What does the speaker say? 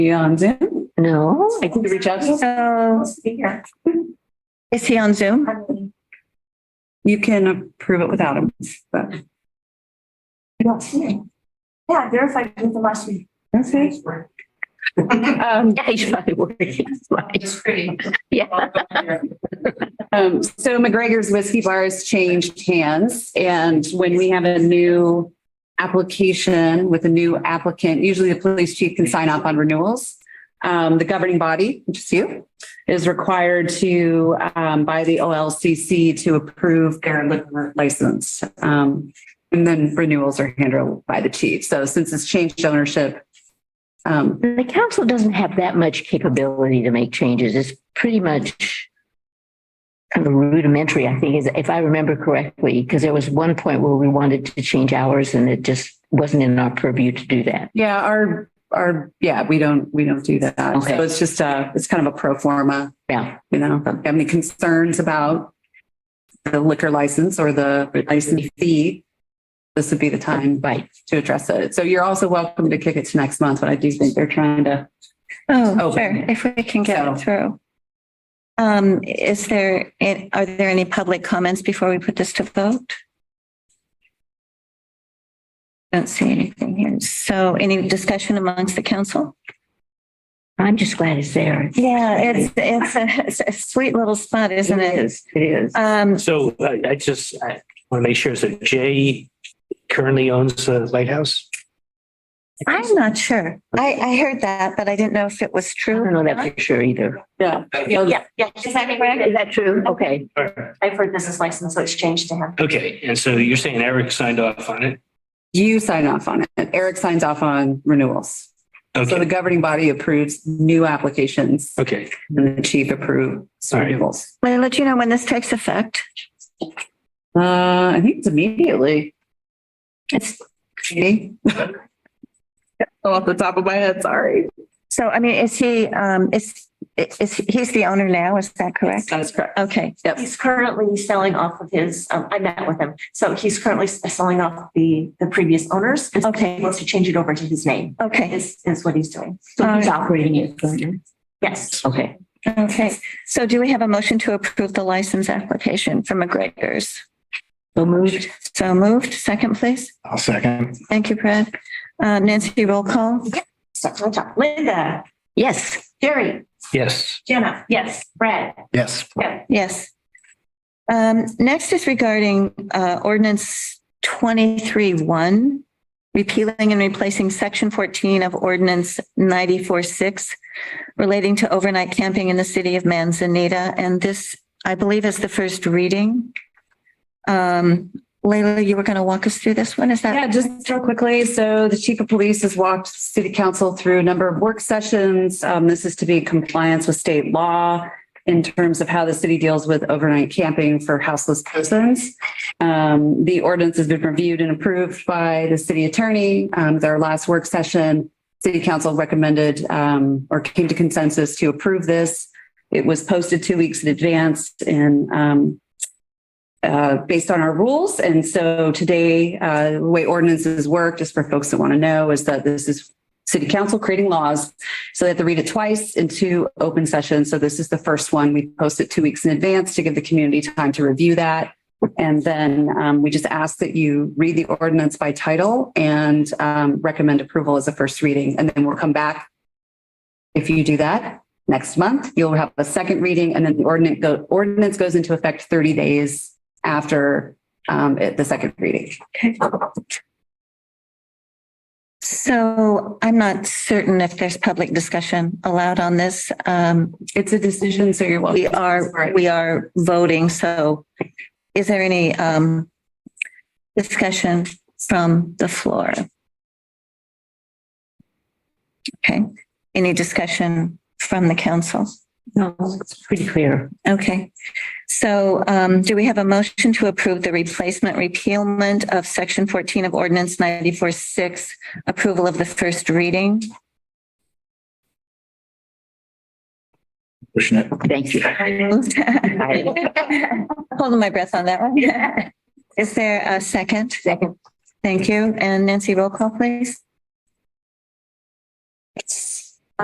Be on Zoom? No. I can reach out to So is he on Zoom? you. can approve it without him, but. Yeah, verified with the last week. Okay. Um, yeah, he's probably working. That's why. Yeah. Um, so McGregor's Whiskey Bar has changed hands and when we have a new application with a new applicant, usually the police chief can sign off on renewals. Um, the governing body, which is you, is required to, um, by the OLCC to approve their liquor license. Um, and then renewals are handled by the chief. So since it's changed ownership, um, The council doesn't have that much capability to make changes. It's pretty much kind of rudimentary, I think, is if I remember correctly, because there was one point where we wanted to change hours and it just wasn't in our purview to do that. Yeah, our, our, yeah, we don't, we don't do that. Okay. So it's just a, it's kind of a pro forma, Yeah. you know, if you have any concerns about the liquor license or the license fee, this would be the time Right. to address it. So you're also welcome to kick it to next month, but I do think they're trying to, Oh, Oh. sure, if we can get it So- through. Um, is there, it- are there any public comments before we put this to vote? Don't see anything here. So any discussion amongst the council? I'm just glad it's there. Yeah, it's, it's a, it's a sweet little spot, isn't it? is. It is. Um, So I, I just, I want to make sure, so Jay currently owns the lighthouse? I'm not sure. I, I heard that, but I didn't know if it was I true. don't know that for sure either. Oh, yeah. Yeah, is that Is correct? that true? Okay. Or- I've heard business license, so it's changed to him. Okay, and so you're saying Eric signed off on it? You sign off on it. Eric signs off on renewals. So the Okay, governing body approves new applications okay, and the chief approves All right. renewals. Will I let you know when this takes effect? Uh, I think it's immediately. It's, Maybe. Off the top of my head, sorry. So, I mean, is he, um, is, is, he's the owner now, is that correct? That's correct. Okay, He's currently selling off of his, um, I met with him. So he's currently s- selling off the, the previous owners. and Okay. He wants to change it over to his name okay, is, is what he's doing. so he's operating it. currently? Yes. Okay. okay. So do we have a motion to approve the license application for McGregor's? So moved. So moved, second please. I'll second. Thank you, Brad. Uh, Nancy, roll call? Start on top. Linda, Yes. Jerry, Yes. Jenna. Yes. Brad. Yes. Yeah. Yes. Um, next is regarding, uh, ordinance twenty-three one, repealing and replacing section fourteen of ordinance ninety-four six relating to overnight camping in the city of Manzanita. And this, I believe, is the first reading. Um, Leila, you were going to walk us through this one, is that? Yeah, just real quickly. So the chief of police has walked city council through a number of work sessions. Um, this is to be in compliance with state law in terms of how the city deals with overnight camping for houseless persons. Um, the ordinance has been reviewed and approved by the city attorney. Um, their last work session, city council recommended, um, or came to consensus to approve this. It was posted two weeks in advance and, um, uh, based on our rules. And so today, uh, the way ordinances work, just for folks that want to know, is that this is city council creating laws. So they have to read it twice in two open sessions. So this is the first one. We post it two weeks in advance to give the community time to review that. And then um, we just ask that you read the ordinance by title and um, recommend approval as a first reading. And then we'll come back. If you do that next month, you'll have a second reading and then the ordinance, go, ordinance goes into effect 30 days after um, it- the second reading. So I'm not certain if there's public discussion allowed on this. Um, It's a decision, so you're welcome. we are, we are voting, so is there any um discussion from the floor? Okay, any discussion from the council? No, it's pretty clear. Okay, so um do we have a motion to approve the replacement repealment of section fourteen of ordinance ninety-four six, approval of the first reading? Pushing it. Thank you. Moved. Holding my breath on that one. Is there a second? Second. Thank you. And Nancy, roll call, please.